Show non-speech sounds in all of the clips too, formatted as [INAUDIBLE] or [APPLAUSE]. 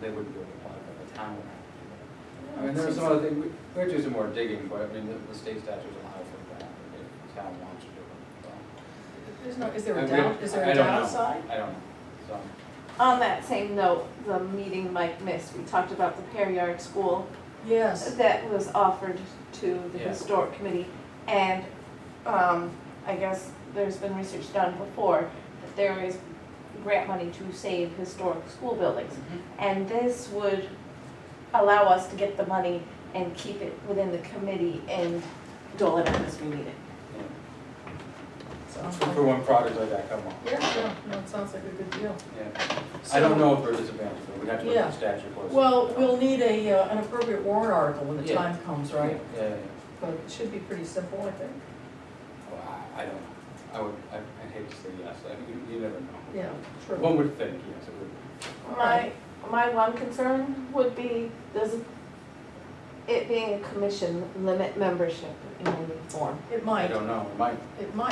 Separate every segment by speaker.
Speaker 1: they wouldn't be able to apply, but the town would have to. I mean, there was some other thing, we we had to do some more digging, but I mean, the- the state statute allows for that, if the town wants to do it. so.
Speaker 2: There's no, is there a
Speaker 1: I- we-
Speaker 2: down, is there
Speaker 1: I
Speaker 2: a
Speaker 1: don't know.
Speaker 2: downside?
Speaker 1: I don't know, so,
Speaker 3: On that same note, the meeting Mike missed, we talked about the Pear Yard School
Speaker 2: Yes.
Speaker 3: that was offered to the
Speaker 1: Yeah.
Speaker 3: historic committee. And, um, I guess there's been research done before, that there is grant money to save historic school buildings. And this would allow us to get the money and keep it within the committee and dole it out as we need it.
Speaker 1: yeah.
Speaker 2: Sounds
Speaker 1: For- For
Speaker 2: like-
Speaker 1: when projects like that come up.
Speaker 2: Yeah, yeah, no, it sounds like a good deal.
Speaker 1: Yeah. I don't know if there's a disadvantage, but we'd have to look at
Speaker 2: Yeah.
Speaker 1: the statute closely.
Speaker 2: Well, we'll need a, uh, an appropriate warrant article when the
Speaker 1: Yeah.
Speaker 2: time comes, right?
Speaker 1: Yeah, yeah, yeah.
Speaker 2: But it should be pretty simple, I think.
Speaker 1: Well, I I don't, know. I would, I I'd hate to say yes, I mean, you you never know.
Speaker 2: Yeah, true.
Speaker 1: One would think, yes, it would.
Speaker 2: All
Speaker 3: My,
Speaker 2: right.
Speaker 3: my one concern would be, does it being a commission limit membership in any form?
Speaker 2: It
Speaker 1: I
Speaker 2: might,
Speaker 1: don't know, it might,
Speaker 2: it might.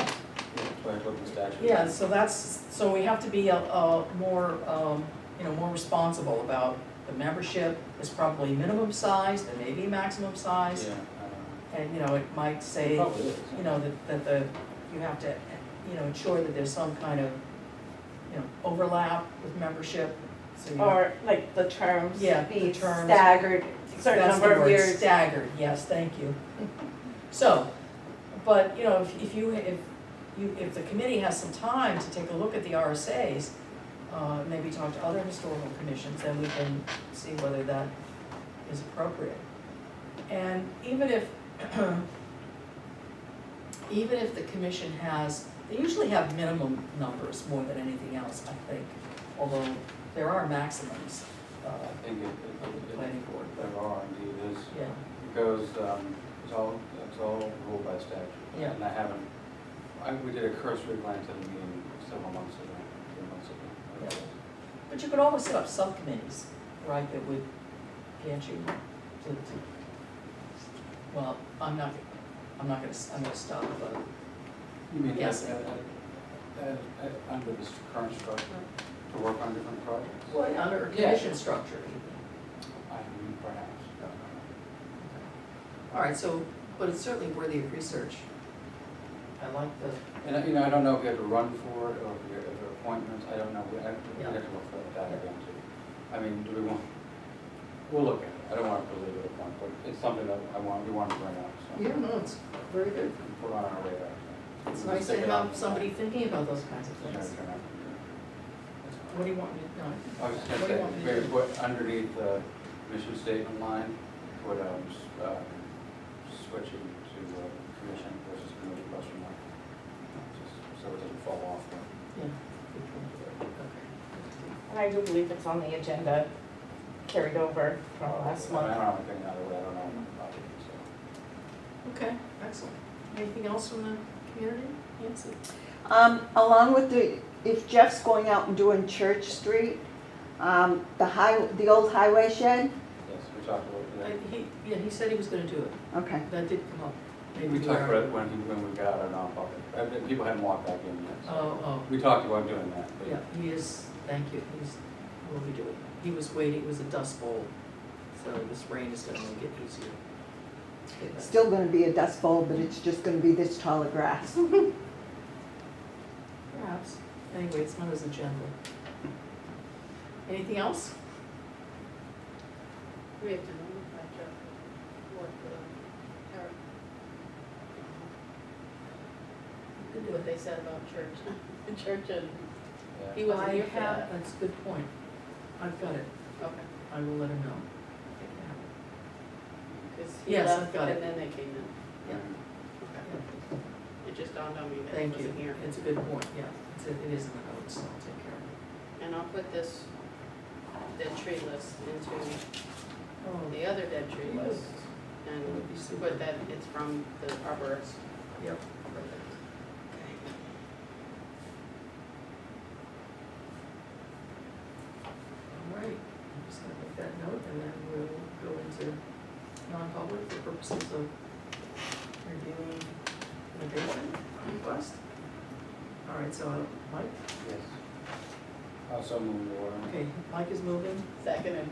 Speaker 1: that's why I looked at the statute.
Speaker 2: Yeah, so that's, so we have to be, uh, uh, more, um, you know, more responsible about the membership. There's probably minimum size, there may be maximum
Speaker 1: Yeah,
Speaker 2: size,
Speaker 1: I don't know.
Speaker 2: and, you know, it might say,
Speaker 1: It probably is.
Speaker 2: you know, that, that the, you have to, you know, ensure that there's some kind of, you know, overlap with membership, so you.
Speaker 3: Or like the terms
Speaker 2: Yeah, the
Speaker 3: be
Speaker 2: terms.
Speaker 3: staggered, certain
Speaker 2: That's the
Speaker 3: number of
Speaker 2: word,
Speaker 3: years?
Speaker 2: Staggered, yes, thank you. So, but, you know, if, if you, if you, if the committee has some time to take a look at the RSAs, uh, maybe talk to other historical commissions, then we can see whether that is appropriate. And even if, [CLEARS THROAT] even if the commission has, they usually have minimum numbers more than anything else, I think, although there are maximums, uh,
Speaker 1: I think it, it, it-
Speaker 2: planning board,
Speaker 1: it,
Speaker 2: but,
Speaker 1: there are indeed, it is,
Speaker 2: yeah.
Speaker 1: it goes, um, it's all, it's all ruled by statute.
Speaker 2: Yeah.
Speaker 1: And I haven't, I, we did a cursory glance at the meeting several months ago, three months ago.
Speaker 2: But you could always set up subcommittees, right, that would, can't you, to, to, well, I'm not, I'm not gonna, s- I'm gonna stop, but,
Speaker 1: You mean,
Speaker 2: Yes.
Speaker 1: as, as, as- under this current structure, to work on different projects?
Speaker 2: well, yeah, under a commission structure.
Speaker 1: I mean, perhaps.
Speaker 2: All right, so, but it's certainly worthy of research. I like the,
Speaker 1: And, uh, you know, I don't know if we have to run for it or if we have to appointments, I don't know, we have to, we
Speaker 2: Yeah.
Speaker 1: have to look at that again too. I mean, do we want, we'll look at it, I don't want to believe it at one, but it's something that I want, we want to bring up, so.
Speaker 2: yeah, no, it's very good.
Speaker 1: Put on our radar. so.
Speaker 2: It's
Speaker 1: We'll
Speaker 2: nice to
Speaker 1: stick it on.
Speaker 2: have somebody thinking about those kinds of
Speaker 1: Turn it,
Speaker 2: things.
Speaker 1: turn it.
Speaker 2: What do you want me to, no,
Speaker 1: I was just
Speaker 2: What do you
Speaker 1: gonna
Speaker 2: want me
Speaker 1: say,
Speaker 2: to
Speaker 1: maybe
Speaker 2: do?
Speaker 1: put underneath the mission statement line, put, um, s- uh, switching to uh, commission versus committee question mark. Just So it doesn't fall off. the-
Speaker 2: yeah. good point. Okay.
Speaker 3: And I do believe it's on the agenda carried over
Speaker 2: Oh,
Speaker 3: from last
Speaker 1: I
Speaker 3: month.
Speaker 1: don't have anything out of it, I don't know about it, so.
Speaker 2: Okay, excellent. Anything else from the community, Nancy?
Speaker 4: Um, along with the, if Jeff's going out and doing Church Street, um, the high, the old highway shed,
Speaker 1: Yes, we talked about
Speaker 2: I-
Speaker 1: it.
Speaker 2: He, yeah, he said he was gonna do it,
Speaker 4: okay,
Speaker 2: that did come up.
Speaker 1: We
Speaker 2: Maybe
Speaker 1: talked
Speaker 2: were-
Speaker 1: about it when, he- when we got out of non-public, I mean, people hadn't walked back in yet, so.
Speaker 2: Oh, oh,
Speaker 1: We talked about doing that,
Speaker 2: yeah,
Speaker 1: but
Speaker 2: he is, thank you, he's, will be doing it. He was waiting, it was a dust bowl, so this rain is gonna make it easier. Okay, but-
Speaker 4: still gonna be a dust bowl, but it's just gonna be this tall of grass.
Speaker 2: Perhaps, anyway, it's not his agenda. Anything else?
Speaker 5: We have to notify Jeff what the, or,
Speaker 2: You can do
Speaker 5: what
Speaker 2: it.
Speaker 5: they said about church, [LAUGHS] the church and,
Speaker 1: yeah.
Speaker 5: he wasn't here for
Speaker 2: I have,
Speaker 5: that.
Speaker 2: that's a good point. I've got it,
Speaker 5: Okay,
Speaker 2: I will let him know.
Speaker 5: because he
Speaker 2: Yes, I've
Speaker 5: left
Speaker 2: got
Speaker 5: and
Speaker 2: it.
Speaker 5: then they came in. Okay. It just dawned on me that he
Speaker 2: Thank you,
Speaker 5: wasn't here.
Speaker 2: it's a good point, yeah, it's, it is in the notes, so I'll take care of it.
Speaker 5: And I'll put this dead tree list into
Speaker 2: Oh,
Speaker 5: the other dead tree
Speaker 2: Yes.
Speaker 5: list
Speaker 2: That
Speaker 5: and
Speaker 2: would be super.
Speaker 5: put that it's from the arborist.
Speaker 2: Yep. All right, I'm just gonna make that note and then we'll go into non-public for purposes of reviewing litigation request. All right, so Mike,
Speaker 1: Yes. Uh, so moved, Warren.
Speaker 2: okay, Mike is moving.
Speaker 5: Second and